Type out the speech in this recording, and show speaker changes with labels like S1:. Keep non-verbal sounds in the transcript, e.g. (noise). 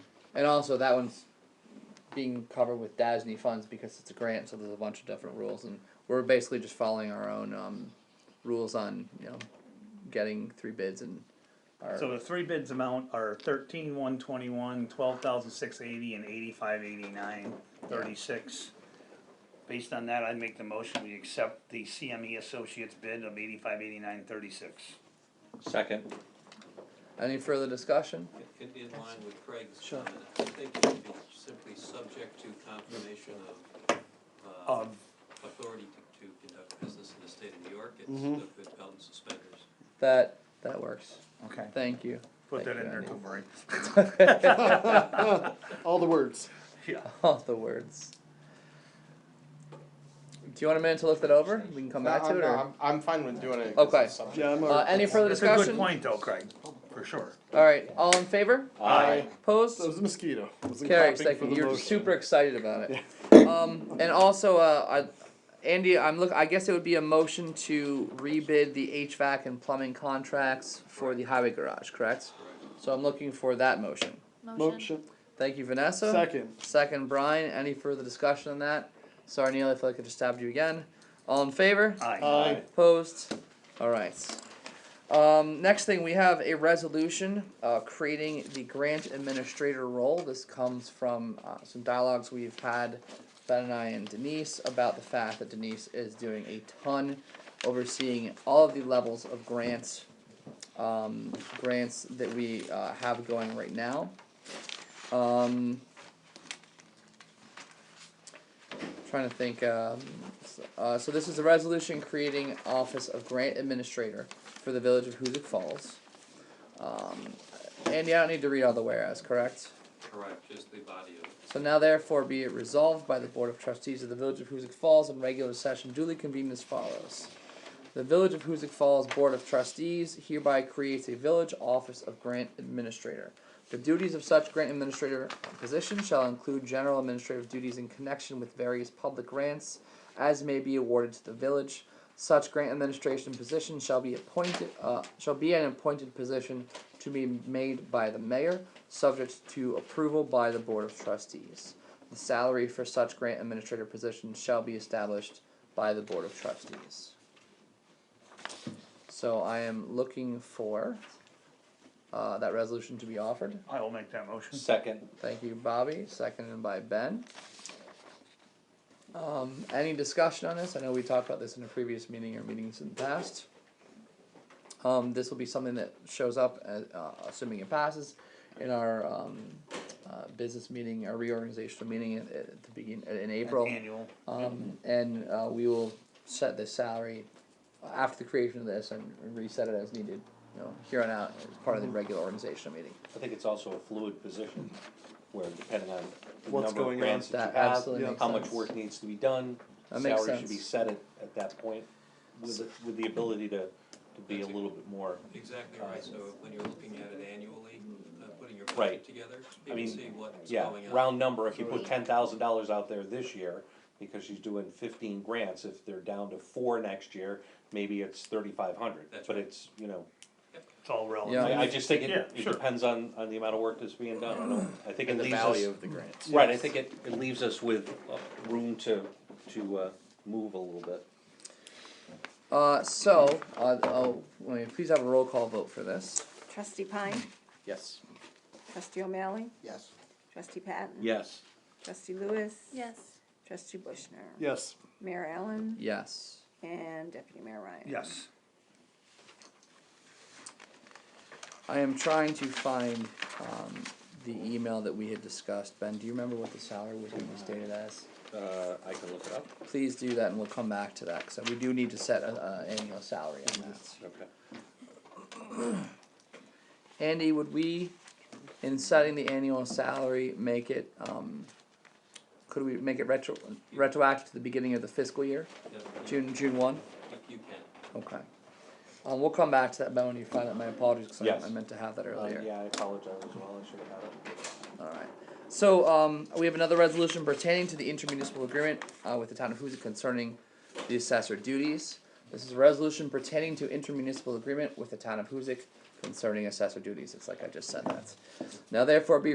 S1: And also that one's being covered with DASNY funds because it's a grant, so there's a bunch of different rules, and we're basically just following our own um, rules on you know getting three bids and our
S2: So the three bids amount are thirteen one twenty-one, twelve thousand six eighty, and eighty-five eighty-nine, thirty-six. Based on that, I'd make the motion, we accept the CME Associates bid of eighty-five eighty-nine, thirty-six.
S3: Second.
S1: any further discussion.
S4: In, in line with Craig's
S1: Sure.
S4: comment, I think it should be simply subject to confirmation of, uh,
S2: Of,
S4: authority to, to conduct business in the state of New York, it's the good belt and suspenders.
S1: That that works.
S2: okay,
S1: Thank you.
S2: put that
S1: Thank
S2: in
S1: you,
S2: there,
S1: Andy.
S2: don't worry.
S5: All the words.
S2: Yeah.
S1: (laughs) All the words. Do you want a minute to look that over? We can come back to it.
S6: No,
S1: Or?
S6: I'm, I'm fine with doing it.
S1: Okay.
S5: Yeah, I'm.
S1: Uh, any further
S2: That's a good
S1: discussion?
S2: point though, Craig, for sure.
S1: All right. All in favor?
S3: Aye.
S1: Opposed?
S5: That was a mosquito. Wasn't
S1: Carries.
S5: clapping
S1: Thank
S5: for
S1: you.
S5: the
S1: You're
S5: motion.
S1: super excited about it. (laughs) Um, and also, uh, I, Andy, I'm look. I guess it would be a motion to rebid the HVAC and plumbing contracts for the highway garage, correct? So I'm looking for that motion.
S5: Motion.
S1: Thank you, Vanessa.
S5: Second.
S1: Second, Brian. Any further discussion on that? Sorry, Neil. I feel like I just stabbed you again. All in favor?
S2: Aye.
S5: Aye.
S1: Opposed? Alright. Um, next thing, we have a resolution, uh, creating the grant administrator role. This comes from, uh, some dialogues we've had, Ben and I and Denise, about the fact that Denise is doing a ton overseeing all of the levels of grants, um, grants that we, uh, have going right now. Um, trying to think, um, uh, so this is a resolution creating office of grant administrator for the village of Hoosick Falls. Um, Andy, I don't need to read all the whereas, correct?
S4: Correct, just the body of it.
S1: So now therefore be it resolved by the Board of Trustees of the Village of Hoosick Falls in regular session duly convened as follows. The Village of Hoosick Falls Board of Trustees hereby creates a village office of grant administrator. The duties of such grant administrator position shall include general administrative duties in connection with various public grants as may be awarded to the village. Such grant administration position shall be appointed, uh, shall be an appointed position to be made by the mayor, subject to approval by the board of trustees. The salary for such grant administrator position shall be established by the board of trustees. So I am looking for, uh, that resolution to be offered.
S2: I will make that motion.
S3: Second.
S1: Thank you, Bobby, seconded by Ben. Um, any discussion on this? I know we talked about this in a previous meeting or meetings in the past. Um, this will be something that shows up, as- uh, assuming it passes, in our, um, uh, business meeting, our reorganizational meeting at, at the begin, in April.
S2: Annual.
S1: Um,
S3: Mm-hmm.
S1: and, uh, we will set the salary after the creation of this and reset it as needed, you know, here on out, as part
S3: Mm-hmm.
S1: of the regular organizational meeting.
S3: I think it's also a fluid position, where depending on the
S5: What's
S3: number
S5: going
S3: of
S5: on.
S3: grants
S1: That
S3: that you have,
S1: absolutely
S5: yeah.
S1: makes
S3: how much
S1: sense.
S3: work needs to be done,
S1: That makes
S3: salary should be
S1: sense.
S3: set at, at that point, with, the- with the ability to, to be a little bit more.
S4: Exactly right, so when you're looking at it annually, uh, putting your
S3: Right.
S4: budget together, you can
S3: mean,
S4: see what's
S3: Yeah,
S4: going on.
S3: round number, if you put ten thousand dollars out there this year, because she's doing fifteen grants, if they're down to four next year, maybe it's thirty-five hundred,
S4: That's
S3: but
S4: right.
S3: it's, you know,
S2: It's all
S1: Yeah.
S2: relevant.
S3: I, I just think it,
S2: Yeah,
S3: it
S2: sure.
S3: depends on, on the amount of work that's being done, I don't, I think it
S6: And the
S3: leaves us.
S6: value of the grants.
S3: Right, I think it, it leaves us with uh, room to, to, uh, move a little bit.
S1: Uh, so, uh, oh, wait, please have a roll call vote for this.
S7: Trustee Pine,
S3: Yes.
S7: trustee O'Malley,
S6: Yes.
S7: trustee Patton.
S3: Yes.
S7: Trustee Lewis.
S8: Yes.
S7: Trustee Bushner.
S5: Yes.
S7: Mayor Allen
S1: Yes.
S7: and Deputy Mayor Ryan.
S2: Yes.
S1: I am trying to find, um, the email that we had discussed. Ben, do you remember what the salary was gonna be stated as?
S3: Uh, I can look it up,
S1: Please do that and we'll come back to that, so we do need to set a, a annual salary on that.
S3: okay.
S1: Andy, would we, in setting the annual salary, make it, um, could we make it retro, retroactive to the beginning of the fiscal year,
S4: Yeah, you-
S1: June, June one?
S4: you- You can.
S1: Okay. Um, we'll come back to that, Ben, when you find out. My apologies, because
S3: Yes.
S1: I meant to have that
S3: Um,
S1: earlier.
S3: yeah, I apologize as well, I should have had it.
S1: Alright. So, um, we have another resolution pertaining to the intermunicipal agreement, uh, with the town of Huzik concerning the assessor duties. This is a resolution pertaining to intermunicipal agreement with the town of Huzik concerning assessor duties. It's like I just said that. Now therefore be